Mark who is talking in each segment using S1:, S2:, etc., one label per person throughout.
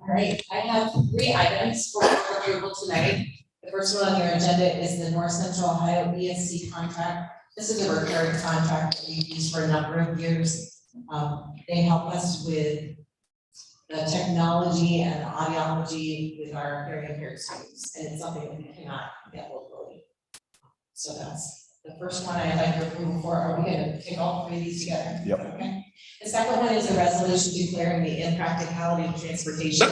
S1: right, I have three items for approval tonight. The first one on your agenda is the North Central Ohio BSC contract. This is a recurring contract that we've used for a number of years. Um, they help us with the technology and audiology with our hearing impaired students, and it's something that we cannot get locally. So that's the first one I'd like your approval for. Are we gonna take all three of these together?
S2: Yep.
S1: Okay. The second one is a resolution declaring the impracticality of transportation.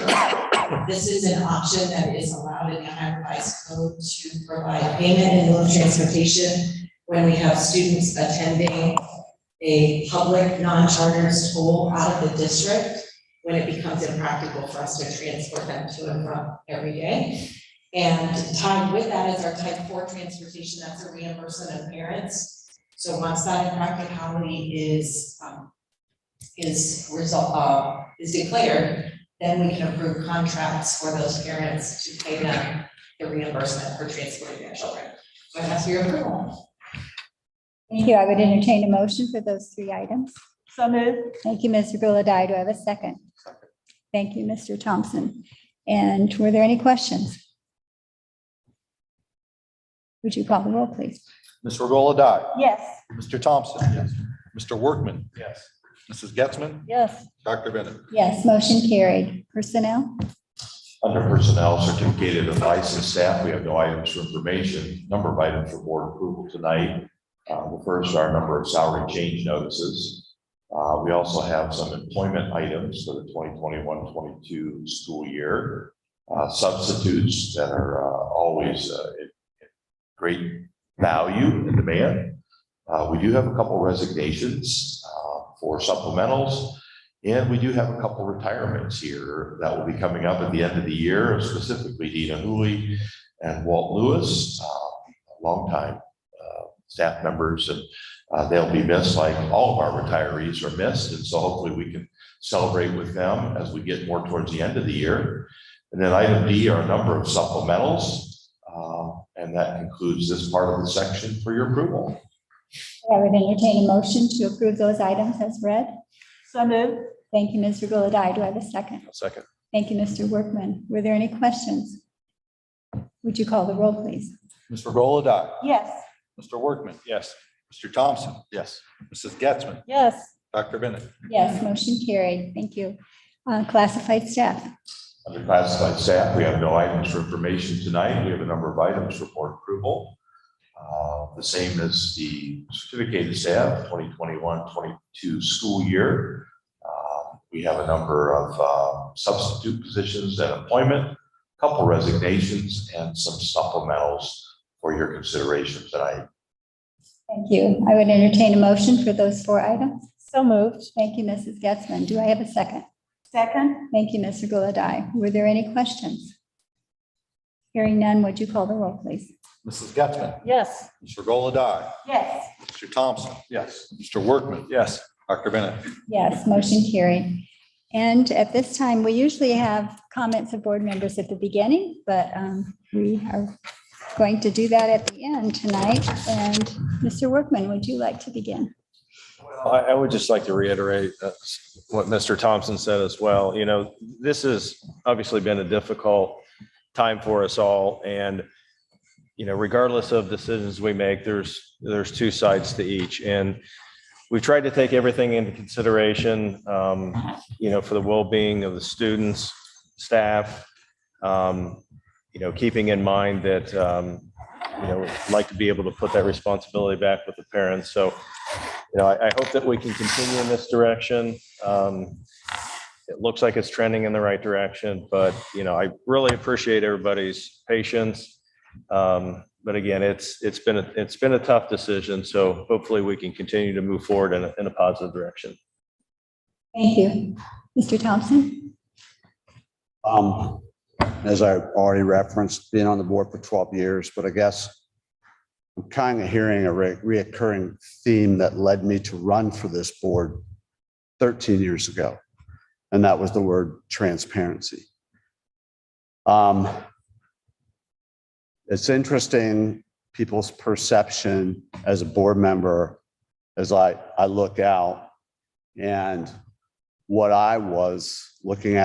S1: This is an option that is allowed in the Ohio Revised Code to provide payment in lieu of transportation when we have students attending a public non-charter school out of the district when it becomes impractical for us to transport them to and from every day. And tied with that is our type four transportation, that's a reimbursement of parents. So once that impracticality is, um, is result, uh, is declared, then we can approve contracts for those parents to pay them the reimbursement for transporting their children. So I ask for your approval.
S3: Thank you. I would entertain a motion for those three items.
S4: So moved.
S3: Thank you, Ms. Gulladye. Do I have a second? Thank you, Mr. Thompson. And were there any questions? Would you call the roll, please?
S2: Ms. Regola Dye.
S4: Yes.
S2: Mr. Thompson. Yes. Mr. Workman. Yes. Mrs. Getzman,
S4: Yes.
S2: Dr. Bennett.
S3: Yes, motion carried. Personnel?
S5: Under personnel certificated of licensed staff, we have no items for information, number of items for board approval tonight. Uh, the first are a number of salary change notices. Uh, we also have some employment items for the 2021-22 school year. Uh, substitutes that are uh, always uh, in- in great value and demand. Uh, we do have a couple resignations, uh, for supplementals. And we do have a couple retirements here that will be coming up at the end of the year, specifically Dina Hooley and Walt Lewis, uh, longtime uh, staff members, and uh, they'll be missed like all of our retirees are missed. And so hopefully we can celebrate with them as we get more towards the end of the year. And then item D are a number of supplementals. uh, And that concludes this part of the section for your approval.
S3: I would entertain a motion to approve those items as read.
S4: So moved.
S3: Thank you, Mr. Gulladye. Do I have a second?
S2: Second.
S3: Thank you, Mr. Workman. Were there any questions? Would you call the roll, please?
S2: Ms. Regola Dye.
S4: Yes.
S2: Mr. Workman. Yes. Mr. Thompson. Yes. Mrs. Getzman,
S4: Yes.
S2: Dr. Bennett.
S3: Yes, motion carried. Thank you. Uh, Classified staff.
S5: Under classified staff, we have no items for information tonight. We have a number of items for board approval. Uh, The same as the certificated staff, 2021, 22 school year. Uh, We have a number of uh, substitute positions and employment, couple resignations, and some supplementals for your consideration tonight.
S3: Thank you. I would entertain a motion for those four items.
S4: So moved.
S3: Thank you, Mrs. Getzmann. Do I have a second?
S4: Second?
S3: Thank you, Mr. Gulladye. Were there any questions? Hearing none, would you call the roll, please?
S2: Mrs. Getzman,
S4: Yes.
S2: Ms. Regola Dye.
S4: Yes.
S2: Mr. Thompson. Yes. Mr. Workman. Yes. Dr. Bennett.
S3: Yes, motion carried. And at this time, we usually have comments of board members at the beginning, but um, we are going to do that at the end tonight. And Mr. Workman, would you like to begin?
S6: I, I would just like to reiterate uh, what Mr. Thompson said as well. You know, this has obviously been a difficult time for us all. And, you know, regardless of decisions we make, there's, there's two sides to each. And we've tried to take everything into consideration, um, you know, for the well-being of the students, staff, um, you know, keeping in mind that, um, you know, we'd like to be able to put that responsibility back with the parents. So you know, I, I hope that we can continue in this direction. Um, It looks like it's trending in the right direction, but, you know, I really appreciate everybody's patience. Um, But again, it's, it's been, a- it's been a tough decision, so hopefully we can continue to move forward in a, in a positive direction.
S3: Thank you. Mr. Thompson?
S7: Um, as I already referenced, being on the board for twelve years, but I guess I'm kind of hearing a re- reoccurring theme that led me to run for this board thirteen years ago. And that was the word transparency. Um, it's interesting, people's perception as a board member, as I, I look out and what I was looking at.